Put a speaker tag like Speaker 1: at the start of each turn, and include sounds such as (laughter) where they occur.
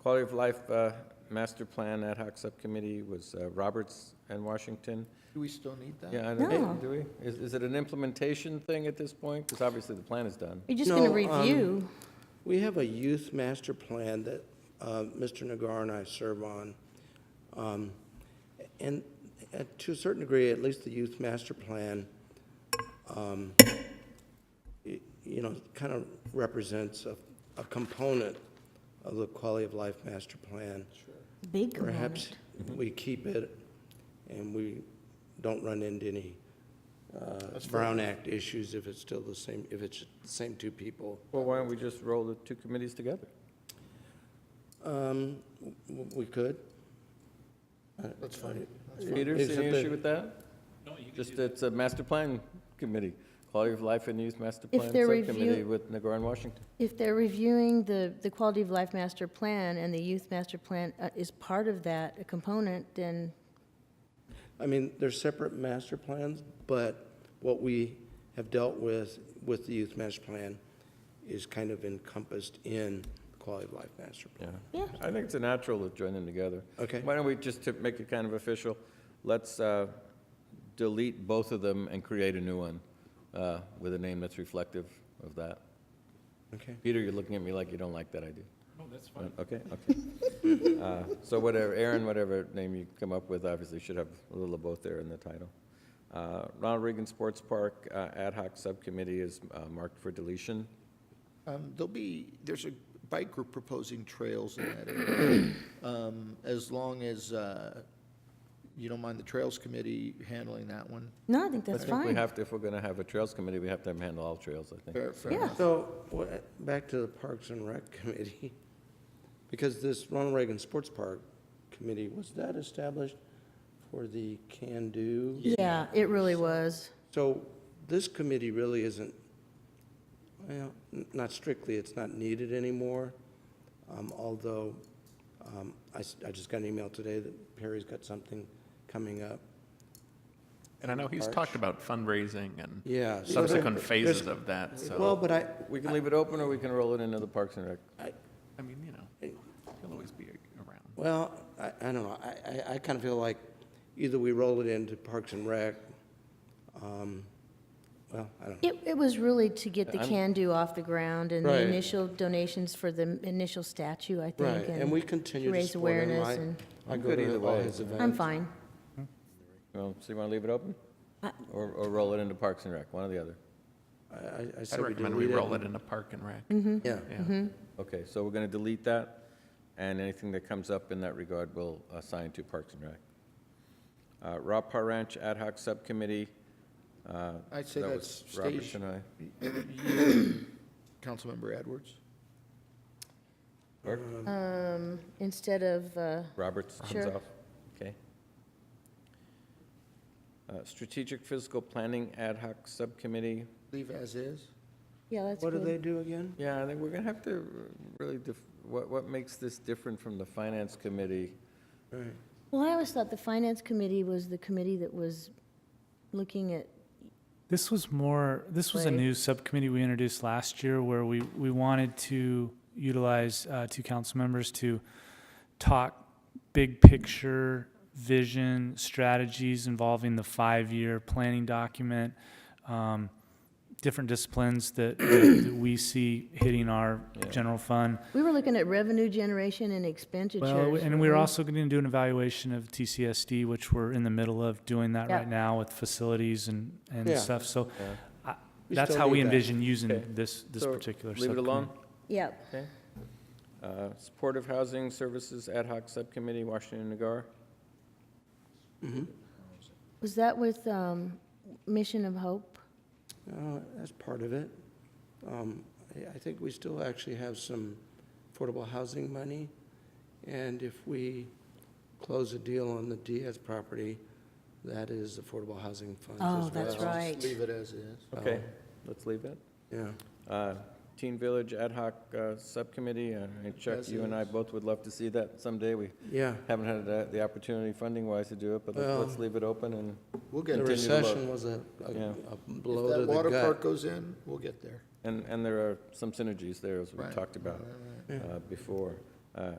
Speaker 1: Quality of Life uh, Master Plan Ad Hoc Subcommittee was uh, Roberts and Washington.
Speaker 2: Do we still need that?
Speaker 1: Yeah, I don't,
Speaker 3: No.
Speaker 1: do we? Is, is it an implementation thing at this point? Because obviously the plan is done.
Speaker 3: You're just going to
Speaker 4: No, um,
Speaker 3: review.
Speaker 4: We have a youth master plan that uh, Mr. Nagar and I serve on. Um, And uh, to a certain degree, at least the youth master plan, um, y- you know, kind of represents a, a component of the quality of life master plan.
Speaker 3: Big
Speaker 4: Perhaps
Speaker 3: component.
Speaker 4: we keep it and we don't run into any uh,
Speaker 2: That's fair.
Speaker 4: Brown Act issues if it's still the same, if it's the same two people.
Speaker 1: Well, why don't we just roll the two committees together?
Speaker 4: Um, w- w- we could. I-
Speaker 2: That's fine. That's fine.
Speaker 1: Peter, see
Speaker 4: Except
Speaker 1: any
Speaker 4: that-
Speaker 1: issue with that? No, you can Just it's a master plan committee, Quality of Life and Youth Master
Speaker 3: If
Speaker 1: Plan
Speaker 3: they're review-
Speaker 1: Subcommittee with Nagar and Washington.
Speaker 3: If they're reviewing the, the Quality of Life Master Plan and the Youth Master Plan uh, is part of that, a component, then
Speaker 4: I mean, they're separate master plans, but what we have dealt with, with the youth master plan is kind of encompassed in the quality of life master plan.
Speaker 1: Yeah.
Speaker 3: Yeah.
Speaker 1: I think it's a natural to join them together.
Speaker 4: Okay.
Speaker 1: Why don't we, just to make it kind of official, let's uh, delete both of them and create a new one uh, with a name that's reflective of that.
Speaker 4: Okay,
Speaker 1: Peter, you're looking at me like you don't like that idea. No, that's fine. Okay, (laughs) okay. Uh, So whatever, Aaron, whatever name you come up with, obviously should have a little of both there in the title. Uh, Ronald Reagan Sports Park uh, Ad hoc Subcommittee is uh, marked for deletion.
Speaker 2: Um, There'll be, there's a bike group proposing trails in that
Speaker 1: (coughs)
Speaker 2: area. Um, As long as uh, you don't mind the Trails Committee handling that one.
Speaker 3: no, I think that's
Speaker 1: I think we
Speaker 3: fine.
Speaker 1: have to, if we're going to have a Trails Committee, we have to handle all trails, I think.
Speaker 2: Fair, fair
Speaker 3: Yeah.
Speaker 2: enough.
Speaker 4: so, wha- back to the Parks and Rec (laughs) Committee, because this Ronald Reagan Sports Park Committee, was that established for the can-do?
Speaker 3: Yeah, it really was.
Speaker 4: So this committee really isn't, well, n- not strictly, it's not needed anymore, Um, although um, I s- I just got an email today that Perry's got something coming up.
Speaker 5: And I know he's
Speaker 4: Arch.
Speaker 5: talked about fundraising and
Speaker 4: Yeah. so there-
Speaker 5: subsequent
Speaker 4: there's-
Speaker 5: phases of that,
Speaker 4: Well,
Speaker 5: so,
Speaker 4: but I,
Speaker 1: We can leave it open, or we can roll it into the Parks and Rec.
Speaker 4: I-
Speaker 5: I mean, you know, he'll always be around.
Speaker 4: well, I I don't know, I- I I kind of feel like either we roll it into Parks and Rec, um, well, I don't know.
Speaker 3: It, it was really to get the
Speaker 1: I'm-
Speaker 3: can-do off the ground and the
Speaker 4: Right.
Speaker 3: initial donations for the initial statue, I think.
Speaker 4: Right, and we continue to
Speaker 3: raise
Speaker 4: support him.
Speaker 3: awareness
Speaker 4: I-
Speaker 3: and-
Speaker 4: I
Speaker 1: I'm
Speaker 4: go
Speaker 1: good
Speaker 4: to
Speaker 1: either
Speaker 4: all
Speaker 1: way.
Speaker 4: his events.
Speaker 3: I'm fine.
Speaker 1: Well, so you want to leave it open?
Speaker 3: I-
Speaker 1: Or, or roll it into Parks and Rec, one or the other?
Speaker 4: I- I I
Speaker 5: I'd
Speaker 4: said we
Speaker 5: recommend we
Speaker 4: delete
Speaker 5: roll it in a Park and Rec.
Speaker 4: Yeah.
Speaker 5: Yeah.
Speaker 1: Okay, so we're going to delete that, and anything that comes up in that regard, we'll assign to Parks and Rec. Uh, Rob Paranch Ad hoc Subcommittee. uh,
Speaker 2: I'd say
Speaker 1: that
Speaker 2: that's
Speaker 1: was Roberts
Speaker 2: stage-
Speaker 1: and I.
Speaker 2: Councilmember Edwards?
Speaker 1: Or
Speaker 4: Uh,
Speaker 3: Um, instead of, uh,
Speaker 1: Roberts comes
Speaker 3: Sure.
Speaker 1: off, okay. Uh, Strategic Physical Planning Ad hoc Subcommittee.
Speaker 2: Leave as is?
Speaker 3: yeah, that's
Speaker 4: What do they
Speaker 3: good.
Speaker 4: do again?
Speaker 1: Yeah, I think we're going to have to really, def- what, what makes this different from the Finance Committee?
Speaker 4: Right.
Speaker 3: Well, I always thought the finance committee was the committee that was looking at,
Speaker 6: This was more, this was a
Speaker 3: Right.
Speaker 6: new subcommittee we introduced last year where we, we wanted to utilize uh, two council members to talk big picture, vision, strategies involving the five-year planning document, um, different disciplines that, that we see hitting our
Speaker 1: Yeah.
Speaker 6: general fund.
Speaker 3: we were looking at revenue generation and Mm-hmm. expenditure.
Speaker 6: Well, and we are also going to do an evaluation of TCSD, which we're in the middle of doing that
Speaker 3: Yeah.
Speaker 6: right now with facilities and, and
Speaker 4: Yeah.
Speaker 6: stuff. So
Speaker 1: Yeah.
Speaker 6: I-
Speaker 4: We
Speaker 6: that's
Speaker 4: still
Speaker 6: how we
Speaker 4: need that.
Speaker 6: envision
Speaker 1: Okay.
Speaker 6: using this, this
Speaker 1: So,
Speaker 6: particular
Speaker 1: Leave it alone?
Speaker 6: subcommittee.
Speaker 3: Yep.
Speaker 1: Okay. Uh, Supportive Housing Services Ad hoc Subcommittee, Washington Nagar. Mm-hmm.
Speaker 3: Was that with um, Mission of Hope?
Speaker 4: Uh, That's part of it. Um, I I think we still actually have some affordable housing money, and if we close a deal on the Diaz property, that is affordable housing funds as well.
Speaker 3: Oh, that's
Speaker 2: Just
Speaker 3: right.
Speaker 2: Leave it as is.
Speaker 1: Okay, Uh, let's leave it.
Speaker 4: Yeah.
Speaker 1: Uh, Teen Village Ad hoc uh, Subcommittee, uh, and Chuck, you and I
Speaker 2: Yes.
Speaker 1: both would love to see that someday. We
Speaker 4: Yeah.
Speaker 1: haven't had uh, the- the opportunity funding-wise to do it, but let's-
Speaker 4: Well-
Speaker 1: let's leave it open and,
Speaker 2: We'll get
Speaker 4: The
Speaker 2: there.
Speaker 1: Continue to look.
Speaker 4: recession was a a-
Speaker 1: Yeah.
Speaker 4: a
Speaker 2: If
Speaker 4: blow to
Speaker 2: that
Speaker 4: the
Speaker 2: water park
Speaker 4: gut.
Speaker 2: goes in, we'll get there.
Speaker 1: and, and there are some synergies there, as we
Speaker 2: Right.
Speaker 1: talked about
Speaker 2: Right, right, right.
Speaker 4: Yeah.
Speaker 1: uh, before. Uh,